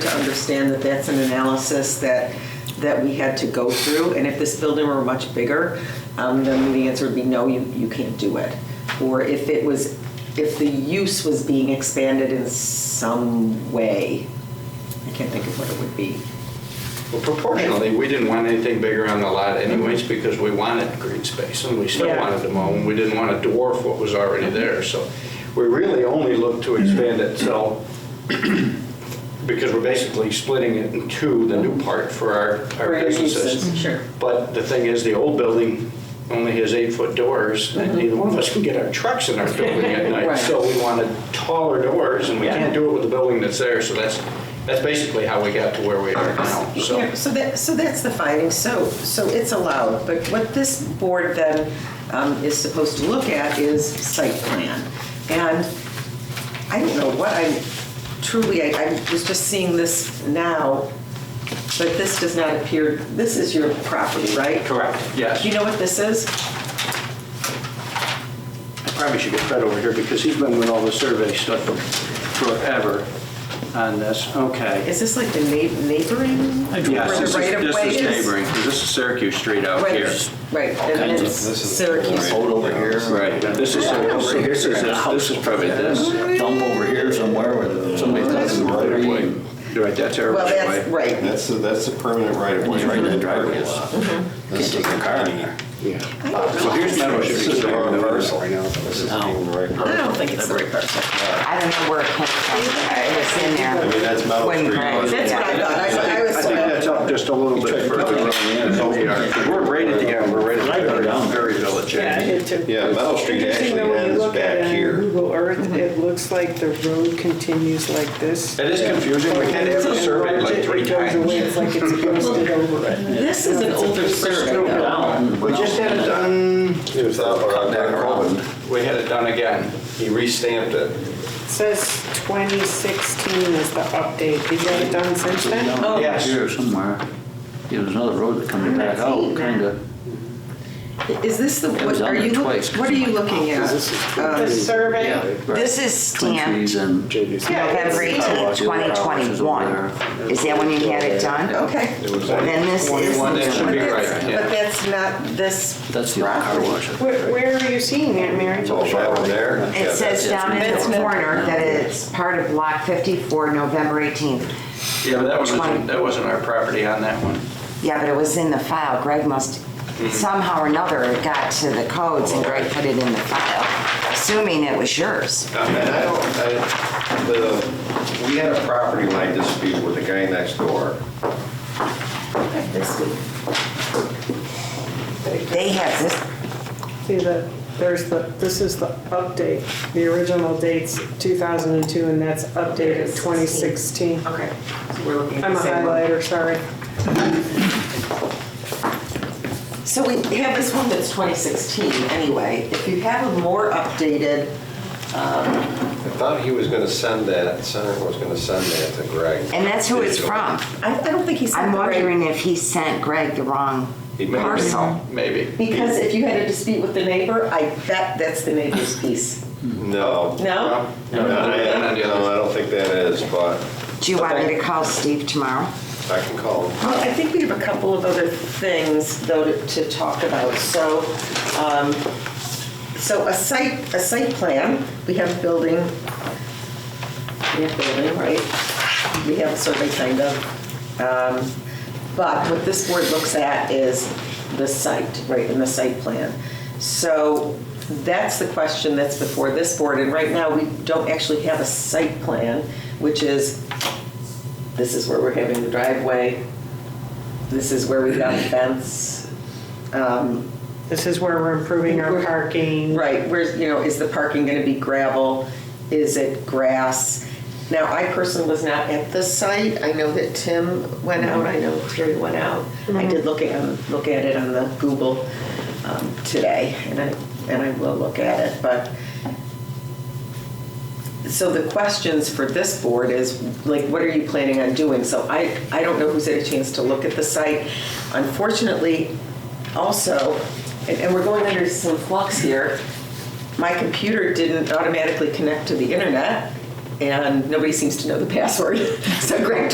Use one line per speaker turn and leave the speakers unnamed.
understand that that's an analysis that, that we had to go through. And if this building were much bigger, um, then the answer would be no, you, you can't do it. Or if it was, if the use was being expanded in some way, I can't think of what it would be.
Well, proportionally, we didn't want anything bigger on the lot anyways because we wanted green space and we still
Yeah.
wanted to mow and we didn't want to dwarf what was already there. So we really only looked to expand it so, because we're basically splitting it in two, the new part for our, our
Right,
businesses.
uses, sure.
But the thing is, the old building only has eight-foot doors and neither one of us can get our trucks in our building at night.
Right.
So we wanted taller doors and we can't do it with the building that's there. So that's, that's basically how we got to where we are now, so.
Yeah, So that, so that's the finding, so, so it's allowed, but what this board then um, is supposed to look at is site plan. And I don't know what I'm, truly, I, I was just seeing this now, but this does not appear, this is your property, right?
Correct, yes.
Do you know what this is?
I probably should get Fred over here because he's been with all the survey stuff forever on this. Okay.
Is this like the neigh- neighboring?
Yes,
where the
this is-
right of
this
way
is neighboring, 'cause this is Syracuse Street out
Right,
here.
Right, and then it's Syracuse.
Hold over here.
Right, this is, Syracuse- this is, this is probably this.
Dump over here somewhere where somebody's not in the right of way.
Right, that's our
Well,
right
that's,
way.
right,
That's, the- that's the permanent right of way.
Right in the driveway.
driveway. This is the car.
So here's my motion.
This is the wrong parcel. This is the
No.
right
I
parcel.
don't think it's the right person.
I don't know where it came from. It was in there.
I mean, that's Meadow
When
Street.
Greg-
That's what I thought, I, I was.
I think that's up just a little bit further. Because We're right at the, yeah, we're right at the Berry Village.
Yeah, I did too.
Yeah, Meadow Street
Interesting
actually
though, when you
ends
look at it
back
on
here.
Google
Mm-hmm.
Earth, it looks like the road continues like this.
It is confusing, we had to have it surveyed like three
It goes away,
times.
it's like it's ghosted over it.
This is an older survey, though.
We just had it done,
It was out on that road.
we had it done again. He restamped it.
It Says 2016 is the update. Did you have it done since then?
Oh.
Yes.
Here somewhere. Yeah, There's another road that comes back out, kind of.
Is this the,
It was
what
on
are
there
you,
twice.
look- what are you looking at?
Oh,
Um,
The survey?
Right.
This is
Twin trees
stamped
and.
Yeah, it's-
November 18, 2021. Is that when you had it done?
Okay.
Then this is.
That should be
But
right,
that's-
yeah.
But that's not this
That's the old car wash.
Where where are you seeing it, Mary?
Oh, that one there? Yeah,
It
that's-
says down in
That's
the
not-
corner that it's part of Block 54, November 18th.
Yeah, but that
Twenty.
wasn't, that wasn't our property on that one.
Yeah, but it was in the file. Greg must, somehow or another, it got to the codes and Greg put it in the file, assuming it was yours.
Um, And I don't, I, the, we had a property line dispute with the guy next door.
They have this,
See the, there's the, this is the update. The original date's 2002 and that's updated 2016.
Okay, so we're looking at
I'm a
the same one.
highlighter, sorry.
So we have this one that's 2016 anyway. If you have a more updated,
I thought he was gonna send that, Senator was gonna send that to Greg.
and that's who it's from.
I I don't think he's.
I'm wondering if he sent Greg the wrong
He might be.
parcel.
Maybe.
Because if you had a dispute with the neighbor, I bet that's the neighbor's piece.
No.
No?
No, I no, I don't think that is, but
Do you want me to call Steve tomorrow?
I can call him.
Well, I think we have a couple of other things, though, to- to talk about. So, um, so a site, a site plan, we have building, we have building, right? We have survey, kind of. Um, But what this board looks at is the site, right, and the site plan. So that's the question that's before this board, and right now, we don't actually have a site plan, which is, this is where we're having the driveway, this is where we got the fence. Um,
This is where we're improving our parking.
Right, where's, you know, is the parking gonna be gravel? Is it grass? Now, I personally was not at the site. I know that Tim went out, I know Terry went out. I did look at, um, look at it on the Google um, today, and I, and I will look at it, but. So the questions for this board is, like, what are you planning on doing? So I, I don't know who's had a chance to look at the site. Unfortunately, also, and, and we're going under some flux here, my computer didn't automatically connect to the internet, and nobody seems to know the password. So Greg